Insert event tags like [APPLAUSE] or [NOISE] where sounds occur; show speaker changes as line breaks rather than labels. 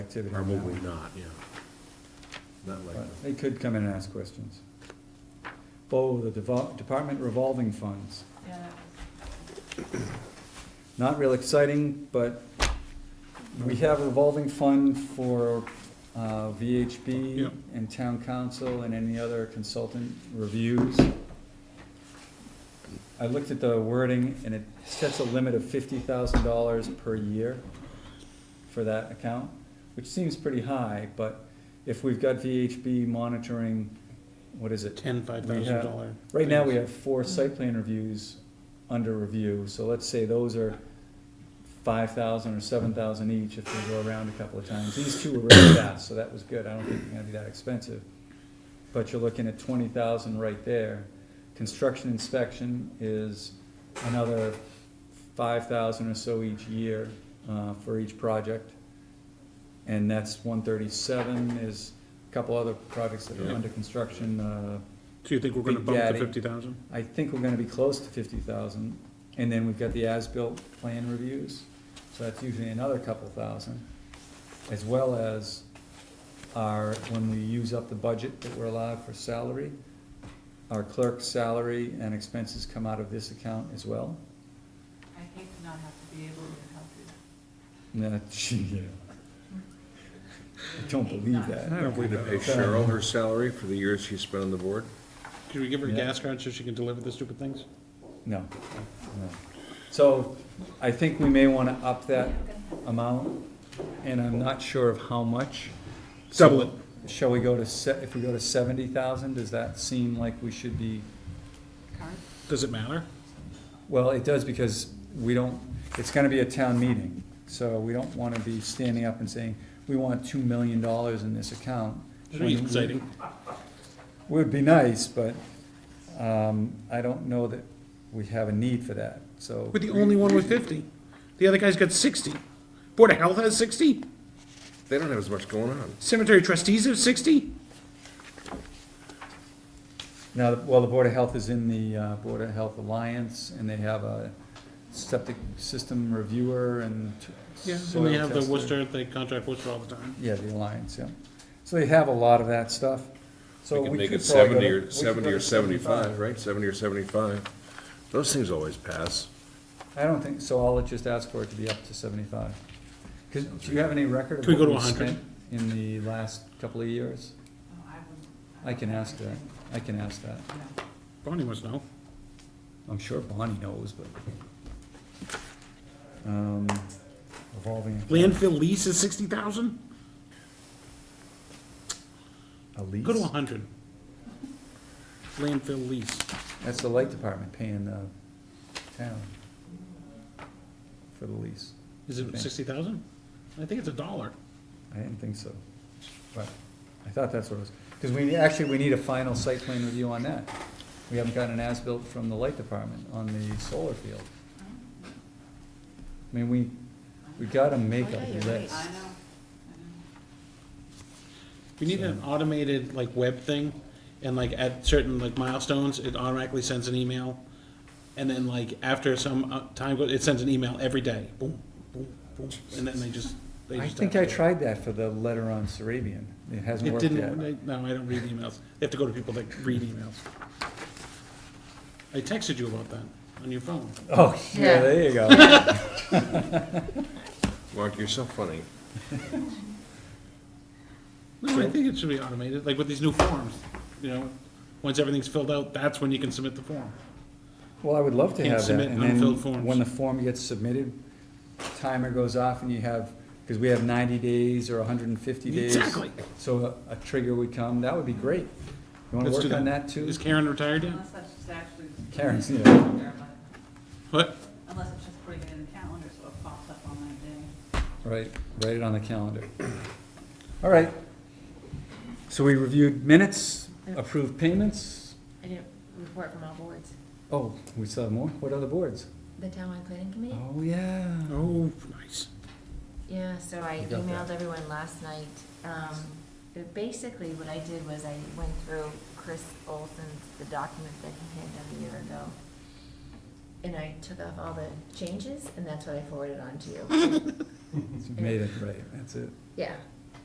activity. now.
Probably not, yeah. Not likely.
But They could come in and ask questions. Bo, the devol- department revolving funds,
Yeah, that was,
not real exciting, but we have a revolving fund for uh, VHB
Yep.
and town council and any other consultant reviews. I looked at the wording and it sets a limit of fifty thousand dollars per year for that account, which seems pretty high, but if we've got VHB monitoring, what is it?
ten, five
We
thousand
have-
dollar.
Right now, we have four site plan reviews under review, so let's say those are five thousand or seven thousand each if they go around a couple of times. These two were really fast, so that was good, I don't think they're gonna be that expensive. But you're looking at twenty thousand right there. Construction inspection is another five thousand or so each year, uh, for each project. And that's one thirty-seven is a couple other projects that are
Yeah.
under construction, uh,
So you think we're gonna
Big
bump to
Daddy.
fifty thousand?
I think we're gonna be close to fifty thousand, and then we've got the as-built plan reviews, so that's usually another couple thousand. As well as our, when we use up the budget that we're allowed for salary, our clerk's salary and expenses come out of this account as well.
I hate to not have to be able to help you.
And that, [LAUGHS] yeah. I don't believe that.
I don't
Going
believe
to
that.
pay Cheryl her salary for the years she spent on the board?
Can we give her a
Yeah.
gas card so she can deliver the stupid things?
No, no. So I think we may wanna up that amount, and I'm not sure of how much.
Double it.
Shall we go to se, if we go to seventy thousand, does that seem like we should be,
Current?
Does it matter?
well, it does because we don't, it's gonna be a town meeting. So we don't wanna be standing up and saying, we want two million dollars in this account.
Should be
when we-
exciting.
Would be nice, but, um, I don't know that we have a need for that, so.
We're the only one with fifty. The other guy's got sixty. Board of Health has sixty.
They don't have as much going on.
Cemetery trustees have sixty.
Now, well, the Board of Health is in the uh, Board of Health Alliance, and they have a septic system reviewer and t-
Yeah,
soil
and they have the
tester.
Worcester, they contract Worcester all the time.
Yeah, the Alliance, yeah. So they have a lot of that stuff, so
We
we
can make
could
it
probably go
seventy
to- we
or,
could go
seventy or
to
seventy-five, right? Seventy or seventy-five. Those things always pass.
I don't think, so I'll just ask for it to be up to seventy-five. 'Cause do you have any record of
Can we
what
go to
we
100?
spent in the last couple of years?
Oh, I wouldn't.
I can ask that, I can ask that.
No.
Bonnie must know.
I'm sure Bonnie knows, but. Um, Revolving. account.
Landfill lease is sixty thousand?
A lease?
Go to a hundred. Landfill lease.
That's the light department paying the town for the lease.
Is it
Okay.
sixty thousand? I think it's a dollar.
I didn't think so, but I thought that's what it was. Because we, actually, we need a final site plan review on that. We haven't gotten an as-built from the light department on the solar field. I mean, we, we gotta make
Oh, yeah,
a
you're right.
list.
I know,
We need an automated like web thing, and like at certain like milestones, it automatically sends an email, and then like after some uh, time goes, it sends an email every day. Boom, boom, boom, and then they just. They
I
just
think I
have to-
tried that for the letter on Sarabian. It hasn't
It
worked yet.
didn't. they- No, I don't read emails. They have to go to people that read emails. I texted you about that on your phone.
[LAUGHS] Oh, yeah,
Yeah.
there you go.
Mark, you're so funny.
No, I think it should be automated, like with these new forms. You know, once everything's filled out, that's when you can submit the form.
Well, I would love to
Can't
have that,
submit
and then,
unfilled forms.
when the form gets submitted, timer goes off and you have, because we have ninety days or hundred and fifty days.
Exactly.
So a, a trigger would come, that would be great. You wanna
Let's do
work on that too?
Is Karen retired
I know,
yet?
Uh-huh.
unless that's just actually.
Karen's, yeah.
What?
Unless it's just putting it in the calendar so it pops up on that day.
Right, write it on the calendar. All right. So we reviewed minutes, approved payments,
I didn't report from all boards.
oh, we still have more, what other boards?
The townwide planning committee?
Oh, yeah.
Oh, nice.
Yeah, so I
You got that.
emailed everyone last night. Um, but basically what I did was I went through Chris Olson's, the document that he had done a year ago. And I took off all the [LAUGHS] changes and that's what I forwarded on to you.
Made it, right, that's it.
Yeah,